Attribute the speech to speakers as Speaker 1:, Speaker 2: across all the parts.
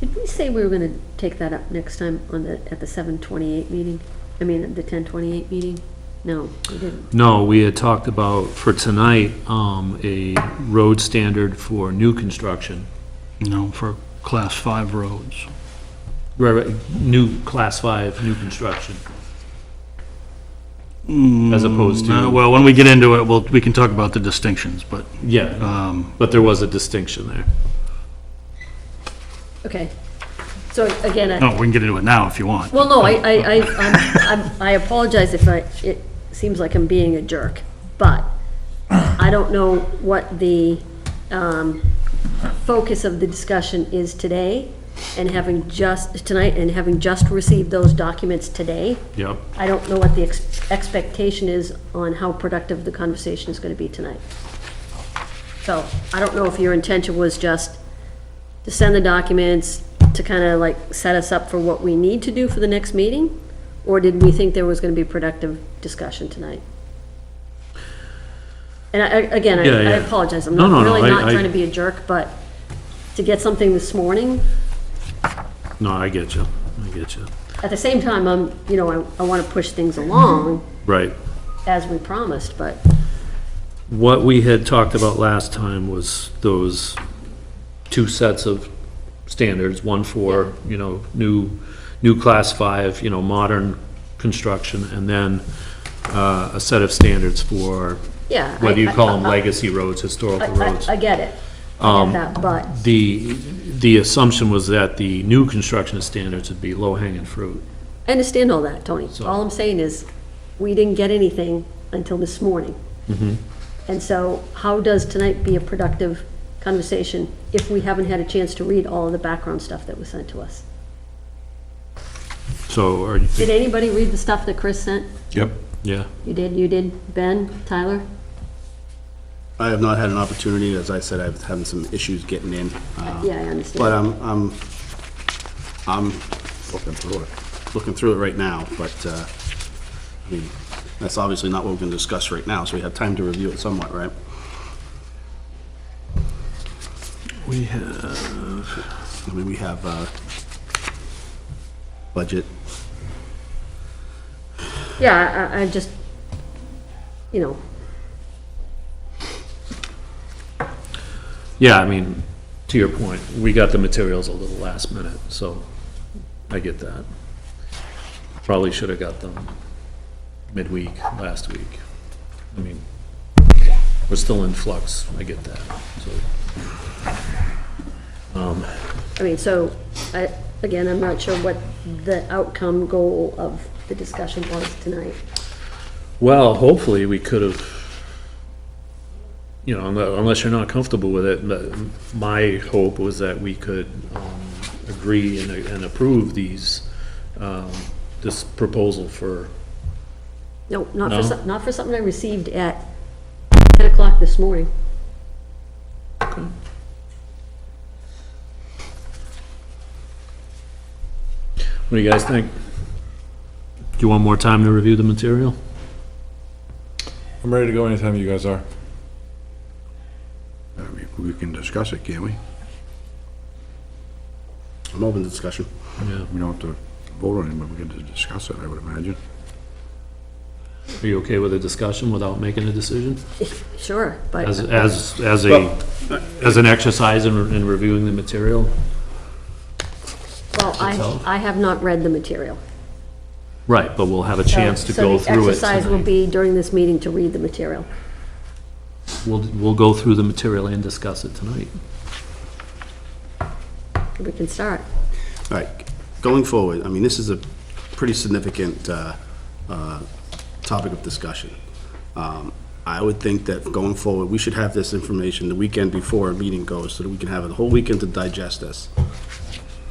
Speaker 1: Did we say we were gonna take that up next time on the, at the seven twenty-eight meeting? I mean, at the ten twenty-eight meeting? No, we didn't.
Speaker 2: No, we had talked about for tonight, um, a road standard for new construction.
Speaker 3: you know, for class five roads.
Speaker 2: Right, right, new class five, new construction. As opposed
Speaker 3: Uh,
Speaker 2: to,
Speaker 3: Well, when we get into it, we'll, we can talk about the distinctions, but,
Speaker 2: yeah,
Speaker 3: um,
Speaker 2: but there was a distinction there.
Speaker 1: Okay. So again, I,
Speaker 3: no, we can get into it now if you want.
Speaker 1: well, no, I, I, I, I'm- I'm- I apologize if I, it seems like I'm being a jerk, but I don't know what the, um, focus of the discussion is today, and having just, tonight, and having just received those documents today,
Speaker 2: Yep.
Speaker 1: I don't know what the ex- expectation is on how productive the conversation is going to be tonight. So I don't know if your intention was just to send the documents to kind of like set us up for what we need to do for the next meeting? Or did we think there was going to be productive discussion tonight? And I, I- again, I
Speaker 2: Yeah,
Speaker 1: I
Speaker 2: yeah.
Speaker 1: apologize. I'm
Speaker 2: No, no,
Speaker 1: not
Speaker 2: no,
Speaker 1: really
Speaker 2: I-
Speaker 1: not
Speaker 2: I-
Speaker 1: trying to be a jerk, but to get something this morning,
Speaker 2: No, I get you, I get you.
Speaker 1: at the same time, I'm, you know, I, I want to push things along
Speaker 2: Right.
Speaker 1: as we promised, but
Speaker 2: What we had talked about last time was those two sets of standards, one for, you know, new, new class five, you know, modern construction, and then uh, a set of standards for,
Speaker 1: Yeah, I-
Speaker 2: whether you call them
Speaker 1: I- I-
Speaker 2: legacy
Speaker 1: I,
Speaker 2: roads, historical roads. Um,
Speaker 1: I, I get it. I get that, but,
Speaker 2: The, the assumption was that the new construction standards would be low-hanging fruit.
Speaker 1: I understand all that, Tony. All I'm saying is, we didn't get anything until this morning.
Speaker 2: Mm-hmm.
Speaker 1: And so how does tonight be a productive conversation if we haven't had a chance to read all of the background stuff that was sent to us?
Speaker 2: So, are you,
Speaker 1: Did anybody read the stuff that Chris sent?
Speaker 4: Yep.
Speaker 2: yeah,
Speaker 1: You did, you did, Ben, Tyler?
Speaker 4: I have not had an opportunity, as I said, I've having some issues getting in, uh,
Speaker 1: Yeah, I understand.
Speaker 4: but I'm, I'm, I'm looking through it, looking through it right now, but, uh, I mean, that's obviously not what we're gonna discuss right now, so we have time to review it somewhat, right?
Speaker 2: we have,
Speaker 4: I mean, we have, uh, budget,
Speaker 2: uh,
Speaker 1: Yeah, I- I, I just, you know,
Speaker 2: yeah, I mean, to your point, we got the materials a little last minute, so I get that. Probably should have got them midweek, last week. I mean, we're still in flux, I get that, so.
Speaker 1: I mean, so, I, again, I'm not sure what the outcome goal of the discussion was tonight.
Speaker 2: Well, hopefully, we could have, you know, unle- unless you're not comfortable with it, but my hope was that we could um, agree and- and approve these, um, this proposal for,
Speaker 1: No, not for,
Speaker 2: No?
Speaker 1: some- not for something I received at 10 o'clock this morning.
Speaker 2: what do you guys think? Do you want more time to review the material?
Speaker 5: I'm ready to go anytime you guys are.
Speaker 6: I mean, we can discuss it, can't we?
Speaker 4: I'm open to discussion.
Speaker 2: Yeah.
Speaker 6: We don't have to vote on it, but we can just discuss it, I would imagine.
Speaker 2: Are you okay with a discussion without making a decision?
Speaker 1: Sure,
Speaker 2: As,
Speaker 1: but,
Speaker 2: as, as a, as an exercise in in reviewing the material?
Speaker 1: well, I, I have not read the material.
Speaker 2: Right, but we'll have a chance to
Speaker 1: So-
Speaker 2: go through it
Speaker 1: So the exercise will
Speaker 2: tonight.
Speaker 1: be during this meeting to read the material.
Speaker 2: We'll, we'll go through the material and discuss it tonight.
Speaker 1: We can start.
Speaker 4: All right, going forward, I mean, this is a pretty significant uh, uh, topic of discussion. Um, I would think that going forward, we should have this information the weekend before a meeting goes, so that we can have a whole weekend to digest this.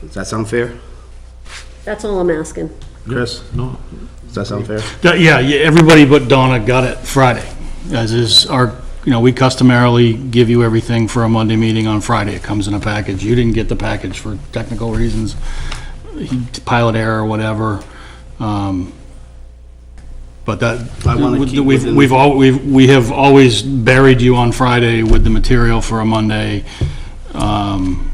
Speaker 4: Does that sound fair,
Speaker 1: That's all I'm asking.
Speaker 4: Chris?
Speaker 2: No,
Speaker 4: Does that sound fair?
Speaker 3: Yeah, Yeah, yeah, everybody but Donna got it Friday, as is our, you know, we customarily give you everything for a Monday meeting on Friday. It comes in a package. You didn't get the package for technical reasons, pilot error or whatever. um, But that,
Speaker 4: I wanna keep
Speaker 3: we've,
Speaker 4: within-
Speaker 3: we've al, we've, we have always buried you on Friday with the material for a Monday. um,